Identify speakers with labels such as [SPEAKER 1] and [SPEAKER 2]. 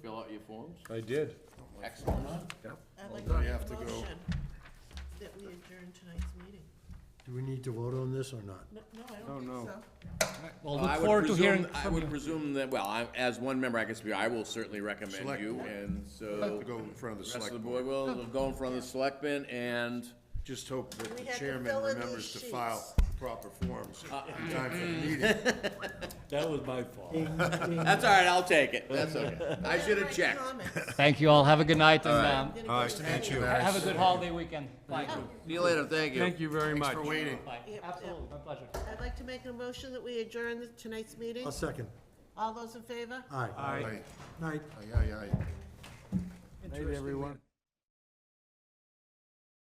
[SPEAKER 1] fill out your forms?
[SPEAKER 2] I did.
[SPEAKER 1] Excellent.
[SPEAKER 3] I'd like to
[SPEAKER 4] You have
[SPEAKER 3] make
[SPEAKER 4] to
[SPEAKER 3] a
[SPEAKER 4] go.
[SPEAKER 3] motion that we adjourn tonight's meeting.
[SPEAKER 5] Do we need to vote on this or not?
[SPEAKER 3] No, no, I don't think so.
[SPEAKER 6] Well,
[SPEAKER 1] I
[SPEAKER 6] look
[SPEAKER 1] would
[SPEAKER 6] forward to
[SPEAKER 1] presume-
[SPEAKER 6] hearing
[SPEAKER 1] I
[SPEAKER 6] from
[SPEAKER 1] would
[SPEAKER 6] you.
[SPEAKER 1] presume that, well, I, as one member, I can speak, I will certainly recommend
[SPEAKER 4] Select
[SPEAKER 1] you,
[SPEAKER 4] board.
[SPEAKER 1] and
[SPEAKER 4] Have
[SPEAKER 1] so.
[SPEAKER 4] to go in front of
[SPEAKER 1] the
[SPEAKER 4] the
[SPEAKER 1] Rest of
[SPEAKER 4] select
[SPEAKER 1] the
[SPEAKER 4] board.
[SPEAKER 1] board will, it'll go in front of the selectmen, and
[SPEAKER 4] Just hope that
[SPEAKER 3] We
[SPEAKER 4] the
[SPEAKER 3] had to
[SPEAKER 4] chairman
[SPEAKER 3] fill in
[SPEAKER 4] remembers to
[SPEAKER 3] these
[SPEAKER 4] file proper forms
[SPEAKER 1] Uh,
[SPEAKER 4] in time for
[SPEAKER 1] mm.
[SPEAKER 4] the meeting.
[SPEAKER 6] That was my fault.
[SPEAKER 1] that's all right, I'll take it, that's okay. I should have
[SPEAKER 3] Write
[SPEAKER 1] checked.
[SPEAKER 3] comments. I'm
[SPEAKER 6] Thank you all. Have a good night and um,
[SPEAKER 3] gonna go
[SPEAKER 2] Nice to meet you.
[SPEAKER 6] have a good holiday weekend. Bye.
[SPEAKER 1] See you later, thank you.
[SPEAKER 2] Thank you very much.
[SPEAKER 4] Thanks for waiting.
[SPEAKER 6] Bye.
[SPEAKER 3] Yep,
[SPEAKER 6] Absolutely. My pleasure.
[SPEAKER 3] I'd like to make a motion that we adjourn the- tonight's meeting.
[SPEAKER 5] A second.
[SPEAKER 3] All those in favor?
[SPEAKER 5] Aye.
[SPEAKER 2] Aye.
[SPEAKER 4] Aye,
[SPEAKER 5] Night.
[SPEAKER 4] aye, aye.
[SPEAKER 2] Night, everyone.